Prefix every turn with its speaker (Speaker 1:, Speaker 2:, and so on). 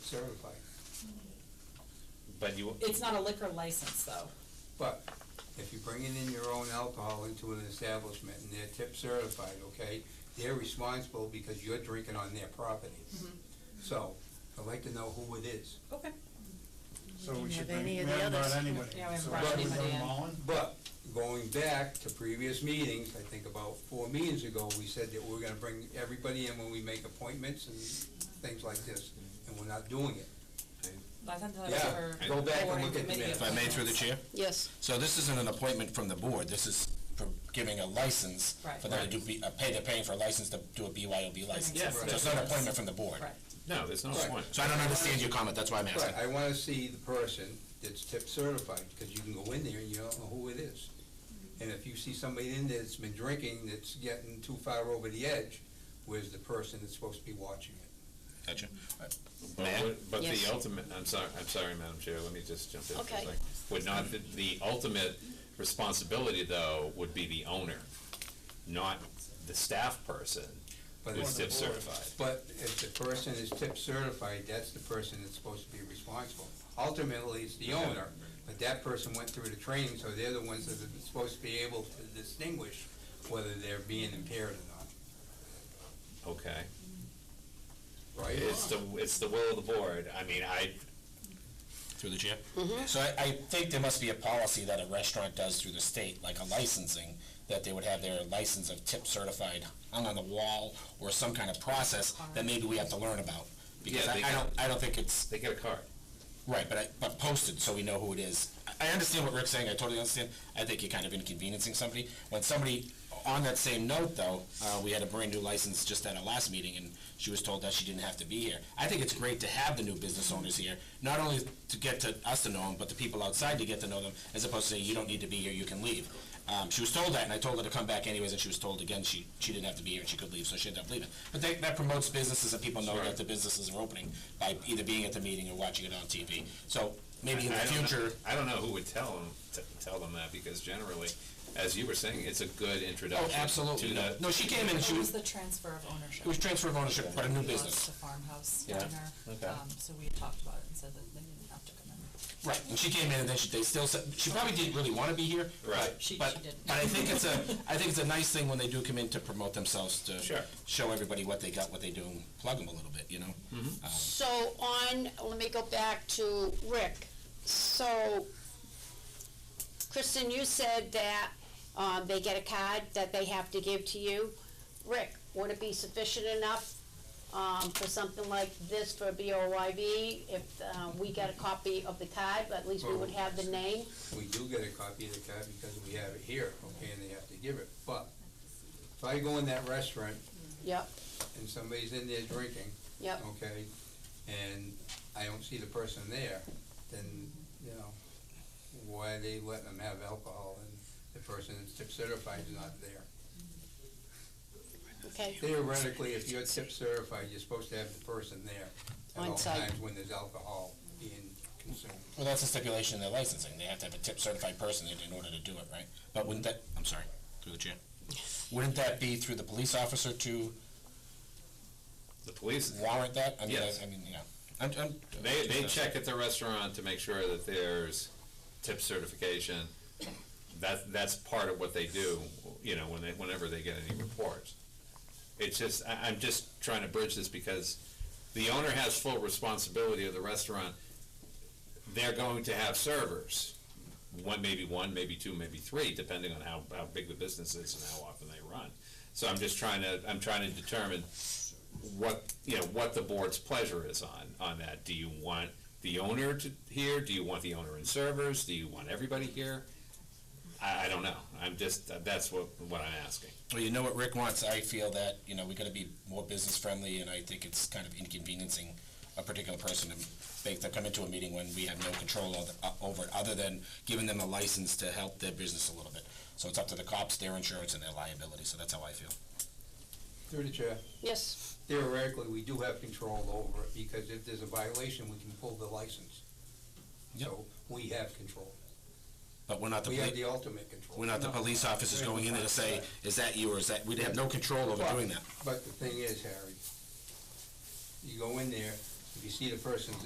Speaker 1: certified,
Speaker 2: But you,
Speaker 3: It's not a liquor license, though.
Speaker 1: but if you're bringing in your own alcohol into an establishment and they're tip certified, okay, they're responsible because you're drinking on their property. So, I'd like to know who it is,
Speaker 3: Okay.
Speaker 4: So we
Speaker 5: Didn't
Speaker 4: should,
Speaker 5: have
Speaker 4: we
Speaker 5: any of the
Speaker 4: haven't brought
Speaker 5: others.
Speaker 4: anybody.
Speaker 3: Yeah, we haven't
Speaker 4: So
Speaker 3: brought
Speaker 4: should we
Speaker 3: anybody
Speaker 4: bring
Speaker 3: in.
Speaker 4: them all in?
Speaker 1: but going back to previous meetings, I think about four meetings ago, we said that we're gonna bring everybody in when we make appointments and things like this, and we're not doing it.
Speaker 3: But I thought that was
Speaker 1: Yeah,
Speaker 3: for
Speaker 1: go back and
Speaker 3: board
Speaker 1: look at the
Speaker 3: committee
Speaker 1: minutes.
Speaker 2: if I may through the chair,
Speaker 5: Yes,
Speaker 2: so this isn't an appointment from the board, this is for giving a license for them to do, B- uh, pay, they're paying for a license to do a BYOB license.
Speaker 3: Yes.
Speaker 2: So it's not an appointment from the board.
Speaker 3: Right.
Speaker 6: No, there's no
Speaker 1: Right.
Speaker 6: point.
Speaker 2: So I don't understand your comment, that's why I'm
Speaker 1: Right, I
Speaker 2: asking.
Speaker 1: wanna see the person that's tip certified, because you can go in there and you don't know who it is. And if you see somebody in there that's been drinking, that's getting too far over the edge, where's the person that's supposed to be watching it?
Speaker 2: Gotcha.
Speaker 6: But,
Speaker 2: Ma'am?
Speaker 6: what- but
Speaker 5: Yes.
Speaker 6: the ultimate, I'm sorry, I'm sorry, Madam Chair, let me just jump in. for a
Speaker 5: Okay.
Speaker 6: second. Would not, the- the ultimate responsibility, though, would be the owner, not the staff person
Speaker 1: But
Speaker 6: who's
Speaker 1: if-
Speaker 6: tip certified.
Speaker 1: But if the person is tip certified, that's the person that's supposed to be responsible. Ultimately, it's the owner, but that person went through the training, so they're the ones that are supposed to be able to distinguish whether they're being impaired or
Speaker 6: Okay.
Speaker 1: not, right?
Speaker 6: It's the, it's the will of the board. I mean, I,
Speaker 2: Through the chair? So I, I think there must be a policy that a restaurant does through the state, like a licensing, that they would have their license of tip certified hung on the wall or some kind of process that maybe we have to learn about. Because
Speaker 6: Yeah,
Speaker 2: I,
Speaker 6: they-
Speaker 2: I don't, I don't think it's,
Speaker 6: they get a card.
Speaker 2: Right, but I, but posted so we know who it is. I, I understand what Rick's saying, I totally understand. I think you're kind of inconveniencing somebody. When somebody, on that same note though, uh, we had a brand new license just at our last meeting and she was told that she didn't have to be here. I think it's great to have the new business owners here, not only to get to us to know them, but the people outside to get to know them, as opposed to saying, you don't need to be here, you can leave. Um, she was told that and I told her to come back anyways and she was told again she, she didn't have to be here and she could leave, so she ended up leaving. But that, that promotes businesses and people know
Speaker 6: Sure.
Speaker 2: that the businesses are opening by either being at the meeting or watching it on TV. So maybe in the
Speaker 6: I don't know-
Speaker 2: future,
Speaker 6: I don't know who would tell them, t- tell them that, because generally, as you were saying, it's a good
Speaker 2: oh,
Speaker 6: introduction.
Speaker 2: absolutely.
Speaker 6: to
Speaker 2: No,
Speaker 6: the-
Speaker 2: no, she came in and she
Speaker 3: It was
Speaker 2: was, it
Speaker 3: the transfer of ownership.
Speaker 2: was transfer of ownership, but a new business.
Speaker 3: The farmhouse
Speaker 2: Yeah.
Speaker 3: diner.
Speaker 6: Okay.
Speaker 3: Um, So we had talked about it and said that they didn't have to come in.
Speaker 2: Right, and she came in and then she, they still said, she probably didn't really wanna be here. but-
Speaker 6: Right.
Speaker 3: She-
Speaker 2: But,
Speaker 3: she didn't.
Speaker 2: but I think it's a, I think it's a nice thing when they do come in to promote themselves, to
Speaker 6: Sure.
Speaker 2: show everybody what they got, what they do, and plug them a little bit, you know?
Speaker 5: so on, let me go back to Rick. So, Kristen, you said that, um, they get a card that they have to give to you. Rick, would it be sufficient enough, um, for something like this for BOYB? If, uh, we got a copy of the card, but at least we would have the name?
Speaker 1: We do get a copy of the card because we have it here, okay, and they have to give it, but if I go in that restaurant
Speaker 5: Yep,
Speaker 1: and somebody's in there drinking,
Speaker 5: yep.
Speaker 1: okay, and I don't see the person there, then, you know, why are they letting them have alcohol and the person that's tip certified is not there?
Speaker 5: Okay,
Speaker 1: Theoretically, if you're tip certified, you're supposed to have the person there at all
Speaker 5: On site.
Speaker 1: times when there's alcohol being consumed.
Speaker 2: Well, that's a stipulation in their licensing, they have to have a tip certified person in, in order to do it, right? But wouldn't that, I'm sorry, through the chair, wouldn't that be through the police officer to
Speaker 6: The police,
Speaker 2: warrant that? I mean,
Speaker 6: Yes.
Speaker 2: I, I mean, yeah, I'm, I'm.
Speaker 6: They, they check at the restaurant to make sure that there's tip certification. That, that's part of what they do, you know, when they, whenever they get any reports. It's just, I, I'm just trying to bridge this because the owner has full responsibility of the restaurant. They're going to have servers, one, maybe one, maybe two, maybe three, depending on how, how big the business is and how often they run. So I'm just trying to, I'm trying to determine what, you know, what the board's pleasure is on, on that. Do you want the owner to, here? Do you want the owner and servers? Do you want everybody here? I, I don't know. I'm just, that's what, what I'm asking.
Speaker 2: Well, you know what Rick wants, I feel that, you know, we gotta be more business friendly, and I think it's kind of inconveniencing a particular person to make them come into a meeting when we have no control over, uh, over it, other than giving them a license to help their business a little bit. So it's up to the cops, their insurance, and their liability, so that's how I feel.
Speaker 1: Through the chair.
Speaker 5: yes,
Speaker 1: Theoretically, we do have control over it, because if there's a violation, we can pull the license. So, we have control.
Speaker 2: But we're not the
Speaker 1: We
Speaker 2: police.
Speaker 1: have the ultimate control.
Speaker 2: We're not the police officers going in there to say, is that you or is that, we'd have no control over
Speaker 1: But-
Speaker 2: doing that.
Speaker 1: But the thing is, Harry, you go in there, if you see the person's